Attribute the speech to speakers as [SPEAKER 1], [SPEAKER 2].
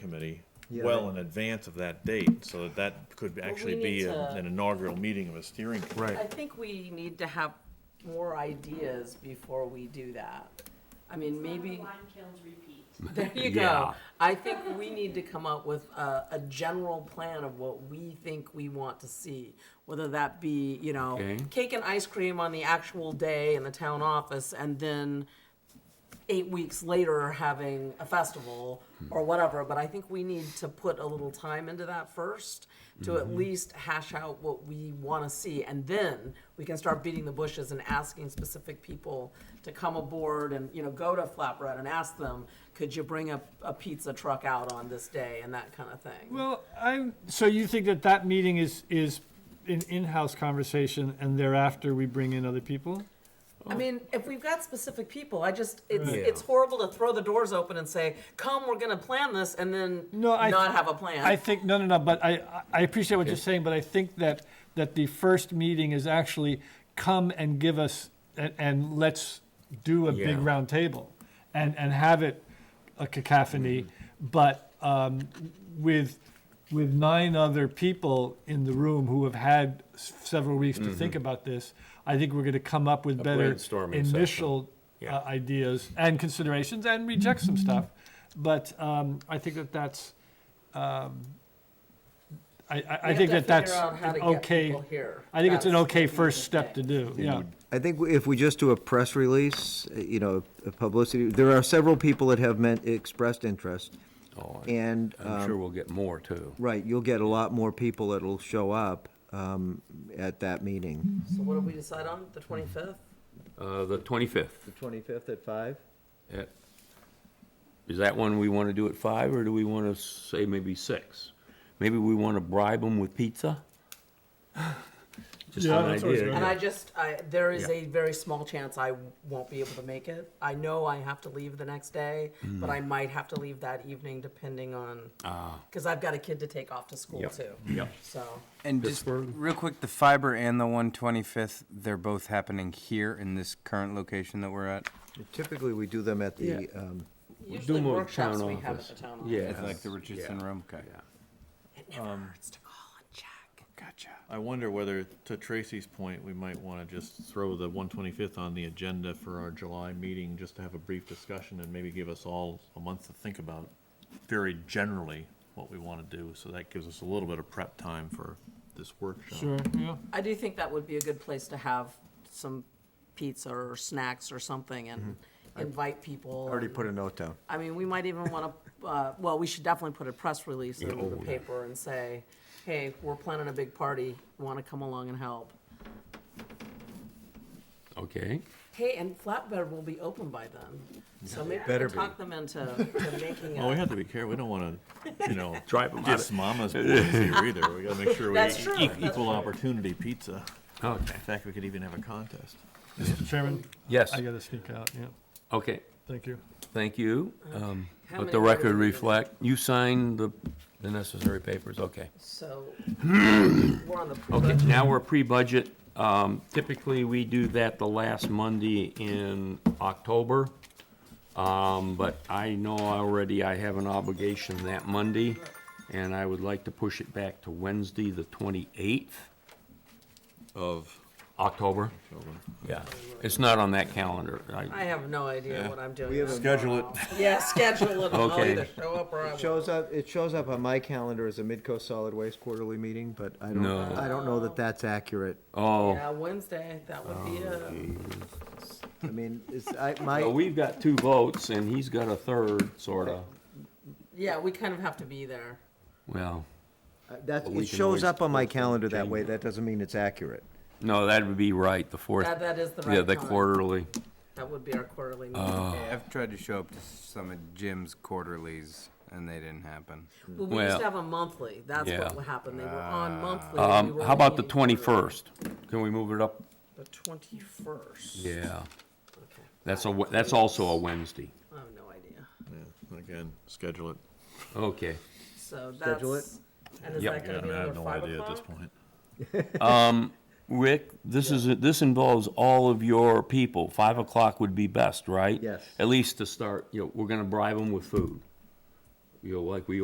[SPEAKER 1] committee
[SPEAKER 2] Yeah.
[SPEAKER 1] well in advance of that date, so that that could actually
[SPEAKER 3] need
[SPEAKER 1] be a-
[SPEAKER 3] to-
[SPEAKER 1] an inaugural meeting of a steering committee.
[SPEAKER 3] I
[SPEAKER 2] Right,
[SPEAKER 3] think we need to have more ideas before we do that. I mean, maybe,
[SPEAKER 4] Wine kilns repeat.
[SPEAKER 3] there you go.
[SPEAKER 5] Yeah.
[SPEAKER 3] I think we need to come up with a, a general plan of what we think we want to see. Whether that be, you know,
[SPEAKER 5] Okay.
[SPEAKER 3] cake and ice cream on the actual day in the town office and then eight weeks later having a festival or whatever. But I think we need to put a little time into that first to at least hash out what we want to see. And then we can start beating the bushes and asking specific people to come aboard and, you know, go to Flatbread and ask them, could you bring a, a pizza truck out on this day and that kind of thing.
[SPEAKER 2] well, I'm, so you think that that meeting is, is an in-house conversation and thereafter we bring in other people?
[SPEAKER 3] I mean, if we've got specific people, I just it's
[SPEAKER 5] Right.
[SPEAKER 3] it's horrible to throw the doors open and say, "Come, we're going to plan this," and then
[SPEAKER 2] No, I-
[SPEAKER 3] not have a plan.
[SPEAKER 2] I think, no, no, no, but I, I- I appreciate what you're saying, but I think that, that the first meeting is actually come and give us, and, and let's do a big
[SPEAKER 5] Yeah.
[SPEAKER 2] round table and, and have it a cacophony,
[SPEAKER 5] Mm-hmm.
[SPEAKER 2] but, um, with, with nine other people in the room who have had s- several weeks to think about this, I think we're gonna come up with better
[SPEAKER 5] Mm-hmm. brainstorming session.
[SPEAKER 2] initial
[SPEAKER 5] Yeah. Mm-hmm.
[SPEAKER 2] uh, ideas and considerations and reject some stuff. But, um, I think that that's, I, I,
[SPEAKER 3] We
[SPEAKER 2] I
[SPEAKER 3] have
[SPEAKER 2] think
[SPEAKER 3] to
[SPEAKER 2] that that's
[SPEAKER 3] figure out how to
[SPEAKER 2] an
[SPEAKER 3] get
[SPEAKER 2] okay.
[SPEAKER 3] people here.
[SPEAKER 2] I think it's an
[SPEAKER 3] That's
[SPEAKER 2] okay
[SPEAKER 3] what we
[SPEAKER 2] first
[SPEAKER 3] need to
[SPEAKER 2] step to
[SPEAKER 3] think.
[SPEAKER 2] do, yeah.
[SPEAKER 6] I think if we just do a press release, uh, you know, a publicity, there are several people that have meant, expressed interest.
[SPEAKER 5] Oh, I-
[SPEAKER 6] And, uh,
[SPEAKER 5] I'm sure we'll get more too.
[SPEAKER 6] right, you'll get a lot more people that'll show up um, at that meeting.
[SPEAKER 3] So what did we decide on? The twenty fifth.
[SPEAKER 5] Uh, the twenty-fifth,
[SPEAKER 6] The 25th at five?
[SPEAKER 5] is that one we want to do at five, or do we want to say maybe six? Maybe we want to bribe them with pizza? Just
[SPEAKER 2] Yeah,
[SPEAKER 5] an
[SPEAKER 2] that's always
[SPEAKER 5] idea.
[SPEAKER 2] good.
[SPEAKER 3] And I just, I, there is a very small chance I won't be able to make it. I know I have to leave the next day, but
[SPEAKER 5] Mm.
[SPEAKER 3] I might have to leave that evening depending on, because I've got a kid to take off to school
[SPEAKER 5] Ah. Yep.
[SPEAKER 3] too.
[SPEAKER 5] Yep.
[SPEAKER 3] So,
[SPEAKER 7] And just
[SPEAKER 5] Pittsburgh.
[SPEAKER 7] real quick, the fiber and the one twenty-fifth, they're both happening here in this current location that we're at?
[SPEAKER 6] Typically, we do them at the,
[SPEAKER 5] Yeah.
[SPEAKER 6] um,
[SPEAKER 3] usually
[SPEAKER 5] them at
[SPEAKER 3] workshops
[SPEAKER 5] town
[SPEAKER 3] we have at
[SPEAKER 5] office.
[SPEAKER 3] the town office.
[SPEAKER 5] Yeah.
[SPEAKER 7] It's like the Richardson
[SPEAKER 5] Yeah.
[SPEAKER 7] Room, okay.
[SPEAKER 3] It never
[SPEAKER 2] Um,
[SPEAKER 3] hurts to call and check.
[SPEAKER 7] Gotcha.
[SPEAKER 1] I wonder whether, to Tracy's point, we might want to just throw the 125th on the agenda for our July meeting, just to have a brief discussion and maybe give us all a month to think about very generally what we want to do, so that gives us a little bit of prep time for this workshop.
[SPEAKER 2] Sure, yeah.
[SPEAKER 3] I do think that would be a good place to have some pizza or snacks or something and
[SPEAKER 5] Mm-hmm.
[SPEAKER 3] invite people.
[SPEAKER 6] already
[SPEAKER 3] and-
[SPEAKER 6] put a note down.
[SPEAKER 3] I mean, we might even want to, uh, well, we should definitely put a press release in the paper and say, hey, we're planning a big party, want to come along and help.
[SPEAKER 5] Okay,
[SPEAKER 3] Hey, and Flatbed will be open by then, so maybe we
[SPEAKER 6] Better
[SPEAKER 3] can
[SPEAKER 6] be.
[SPEAKER 3] talk them into to making
[SPEAKER 1] Well, we
[SPEAKER 3] a.
[SPEAKER 1] have to be careful, we don't want to, you know,
[SPEAKER 5] Drive 'em out of-
[SPEAKER 1] diss mama's boys here either, we gotta make sure we
[SPEAKER 3] That's true,
[SPEAKER 1] e-
[SPEAKER 3] that's
[SPEAKER 1] equal opportunity pizza.
[SPEAKER 5] okay,
[SPEAKER 1] In fact, we could even have a contest.
[SPEAKER 2] Mr. Chairman,
[SPEAKER 5] yes,
[SPEAKER 2] I gotta sneak out, yeah,
[SPEAKER 5] okay,
[SPEAKER 2] thank you.
[SPEAKER 5] thank you.
[SPEAKER 3] Uh,
[SPEAKER 5] Um,
[SPEAKER 3] How
[SPEAKER 5] Let
[SPEAKER 3] many
[SPEAKER 5] the
[SPEAKER 3] more do
[SPEAKER 5] record
[SPEAKER 3] we need?
[SPEAKER 5] reflect, you signed the, the necessary papers, okay.
[SPEAKER 3] So, we're on the
[SPEAKER 5] Okay,
[SPEAKER 3] pre-budget.
[SPEAKER 5] now we're pre-budget. Um, Typically, we do that the last Monday in October. Um, But I know already I have an obligation that Monday, and I would like to push it back to Wednesday, the 28th of October. Yeah, it's not on that calendar.
[SPEAKER 3] I
[SPEAKER 5] I-
[SPEAKER 3] have no idea what I'm doing.
[SPEAKER 6] have a-
[SPEAKER 1] Schedule it.
[SPEAKER 3] Yeah, schedule it, I'll
[SPEAKER 5] Okay.
[SPEAKER 3] either show up or I won't.
[SPEAKER 6] Shows up, it shows up on my calendar as a Midco Solid Waste quarterly meeting, but I don't,
[SPEAKER 5] No.
[SPEAKER 6] I don't know that that's accurate.
[SPEAKER 5] Oh,
[SPEAKER 3] Yeah, Wednesday, that would be a,
[SPEAKER 6] I mean, it's, I, my.
[SPEAKER 5] so we've got two votes, and he's got a third, sort of.
[SPEAKER 3] yeah, we kind of have to be there.
[SPEAKER 5] Well,
[SPEAKER 6] Uh, That's,
[SPEAKER 5] But we
[SPEAKER 6] it
[SPEAKER 5] can
[SPEAKER 6] shows
[SPEAKER 5] always
[SPEAKER 6] up on
[SPEAKER 5] post it
[SPEAKER 6] my
[SPEAKER 5] and
[SPEAKER 6] calendar that
[SPEAKER 5] change
[SPEAKER 6] way,
[SPEAKER 5] it.
[SPEAKER 6] that doesn't mean it's accurate.
[SPEAKER 5] no, that would be right, the fourth.
[SPEAKER 3] That, that is the right
[SPEAKER 5] Yeah, the
[SPEAKER 3] time.
[SPEAKER 5] quarterly.
[SPEAKER 3] That would be our quarterly meeting.
[SPEAKER 7] Yeah, I've tried to show up to some of Jim's quarterlies and they didn't happen.
[SPEAKER 3] Well, we used
[SPEAKER 5] Well,
[SPEAKER 3] to have a monthly, that's
[SPEAKER 5] yeah.
[SPEAKER 3] what would happen, they were on monthly. and we
[SPEAKER 5] Um,
[SPEAKER 3] were
[SPEAKER 5] how about the
[SPEAKER 3] only meeting quarterly.
[SPEAKER 5] twenty-first? Can we move it up?
[SPEAKER 3] The twenty-first?
[SPEAKER 5] Yeah.
[SPEAKER 3] Okay,
[SPEAKER 5] That's a, we- that's also a Wednesday.
[SPEAKER 3] I have no idea,
[SPEAKER 1] Yeah, Again, schedule it.
[SPEAKER 5] Okay.
[SPEAKER 3] so that's.
[SPEAKER 6] Schedule
[SPEAKER 3] And is
[SPEAKER 5] Yep.
[SPEAKER 1] Yeah,
[SPEAKER 3] that gonna
[SPEAKER 1] I
[SPEAKER 3] be
[SPEAKER 1] mean, I have
[SPEAKER 3] another
[SPEAKER 1] no
[SPEAKER 3] five
[SPEAKER 1] idea at this
[SPEAKER 3] o'clock?
[SPEAKER 1] point.
[SPEAKER 5] Rick, this is, this involves all of your people. Five o'clock would be best, right?
[SPEAKER 6] Yes.
[SPEAKER 5] At least to start, you know, we're gonna bribe them with food. You know, like we